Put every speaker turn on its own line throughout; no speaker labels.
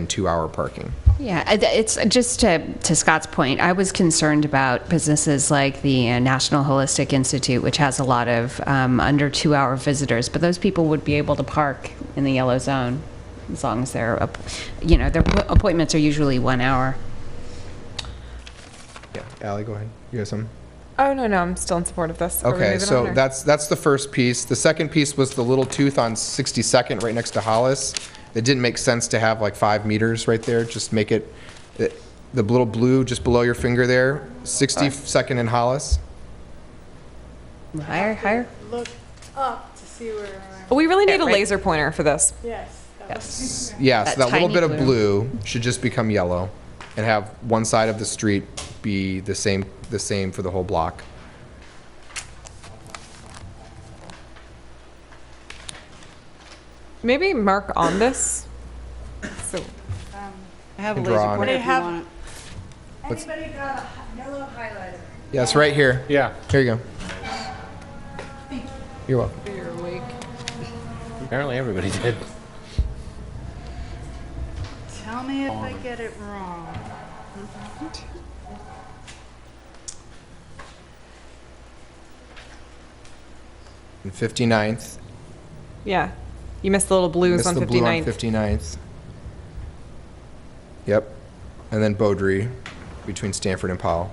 and two-hour parking.
Yeah, I- th- it's uh, just to, to Scott's point, I was concerned about businesses like the uh, National Holistic Institute, which has a lot of um, under two hour visitors, but those people would be able to park in the yellow zone as long as their, app- you know, their app- appointments are usually one hour.
Yeah, Ally, go ahead. You have some?
Oh, no, no, I'm still in support of this. Are we
Okay,
moving on,
so
or-
that's, that's the first piece. The second piece was the little tooth on 62nd, right next to Hollis. It didn't make sense to have like five meters right there, just make it, the the little blue just below your finger there, 62nd and Hollis.
Higher, higher?
look up to see where I'm,
We really need a
right.
laser pointer for this.
yes. that was-
S- Yeah, so
That
that little
tiny
bit of
blue.
blue should just become yellow and have one side of the street be the same, the same for the whole block.
Maybe mark on this. So
I have a
And
laser
draw on
pointer
it.
if you
They have-
want it.
Anybody got a hi- yellow highlighter?
Yes, right here.
Yeah.
Here you go. You're welcome.
Apparently everybody did.
Tell me if I get it wrong.
And 59th.
yeah, you missed the little blues
Missed
on
the
59th.
blue on 59th. Yep. And then Beaudry between Stanford and Powell.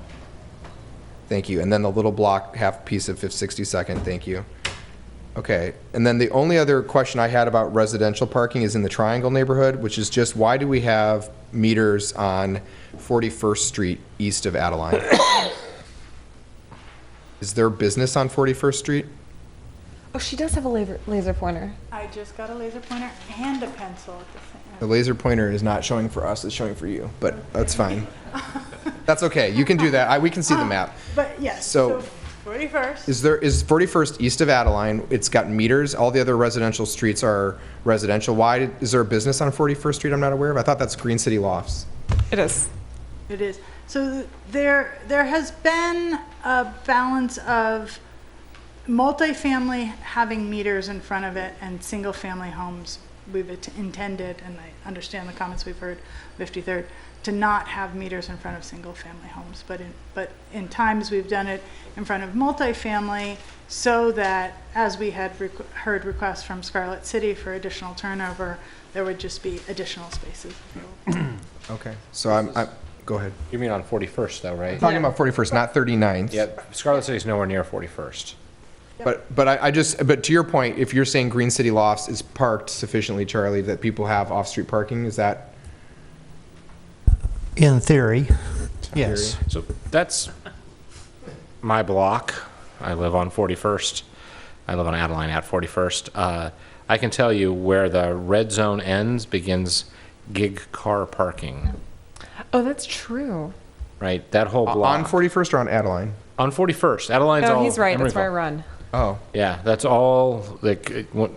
Thank you. And then the little block, half piece of 62nd. Thank you. Okay. And then the only other question I had about residential parking is in the Triangle neighborhood, which is just why do we have meters on 41st Street east of Adeline? is there business on 41st Street?
Oh, she does have a laser laser pointer.
I just got a laser pointer and a pencil at the same.
The laser pointer is not showing for us, it's showing for you, but that's fine. That's okay, you can do that, I, we can see the map.
But yes,
So-
so forty-first,
Is there, is 41st east of Adeline, it's got meters, all the other residential streets are residential. Why, did- is there a business on 41st Street I'm not aware of? I thought that's Green City Lofts.
It is.
it is. So th- there, there has been a balance of multifamily having meters in front of it and single-family homes. We've int- intended, and I understand the comments we've heard, fifty-third, to not have meters in front of single-family homes. But in, but in times, we've done it in front of multifamily so that, as we had requ- heard requests from Scarlet City for additional turnover, there would just be additional spaces available.
Okay. So I'm, I, go ahead.
You mean on 41st though, right?
Talking about 41st, not 39th.
Yep, Scarlet City's nowhere near 41st.
But, but I, I just, but to your point, if you're saying Green City Lofts is parked sufficiently, Charlie, that people have off-street parking, is that?
In theory, yes.
So that's my block. I live on 41st. I live on Adeline at 41st. Uh, I can tell you where the red zone ends begins gig car parking,
Oh, that's true.
right? That whole
Uh, On
block.
41st or on Adeline?
On 41st. Adeline's
No,
all.
Oh, he's right. That's where I
Emeryville.
run.
Oh.
Yeah, that's all, like, it- what-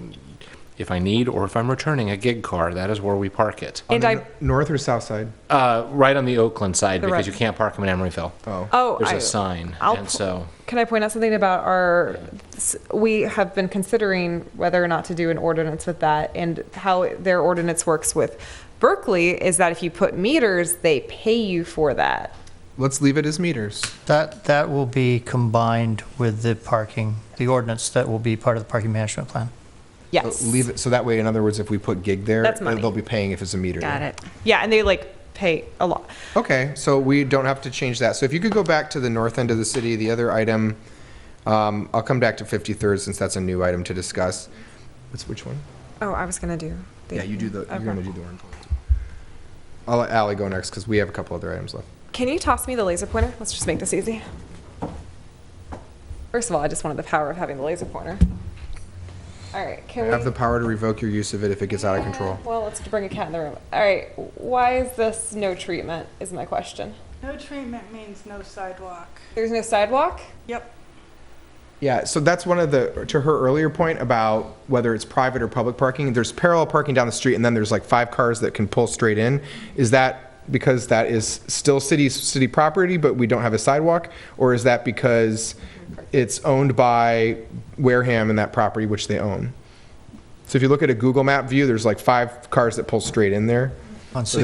if I need or if I'm returning a gig car, that is where we park it.
And I
N- North or south side?
Uh, right on the Oakland side
The red-
because you can't park them in Emeryville.
Oh.
oh,
There's
I,
a sign,
I'll
and
pu-
so
Can I point out something about our? s- We have been considering whether or not to do an ordinance with that, and how their ordinance works with Berkeley is that if you put meters, they pay you for that.
Let's leave it as meters.
That, that will be combined with the parking, the ordinance that will be part of the parking management plan.
Uh,
Yes.
Leave it, so that way, in other words, if we put gig there,
That's
uh,
money.
they'll be paying if it's a meter.
Got it.
Yeah, and they like pay a lot.
Okay, so we don't have to change that. So if you could go back to the north end of the city, the other item, um, I'll come back to 53rd since that's a new item to discuss. What's, which one?
Oh, I was gonna do. the-
Yeah, you do the, you're
Okay.
gonna do the orange one. I'll let Ally go next because we have a couple other items left.
Can you toss me the laser pointer? Let's just make this easy. First of all, I just wanted the power of having the laser pointer. All right, can we?
Have the power to revoke your use of it if it gets out of control.
Well, let's bring a cat in the room. All right, why is this no treatment? Is my question.
No treatment means no sidewalk.
There's no sidewalk.
Yep.
Yeah, so that's one of the, to her earlier point about whether it's private or public parking, there's parallel parking down the street, and then there's like five cars that can pull straight in. Is that because that is still city, city property, but we don't have a sidewalk? Or is that because it's owned by Wareham and that property which they own? So if you look at a Google map view, there's like five cars that pull straight in there.
On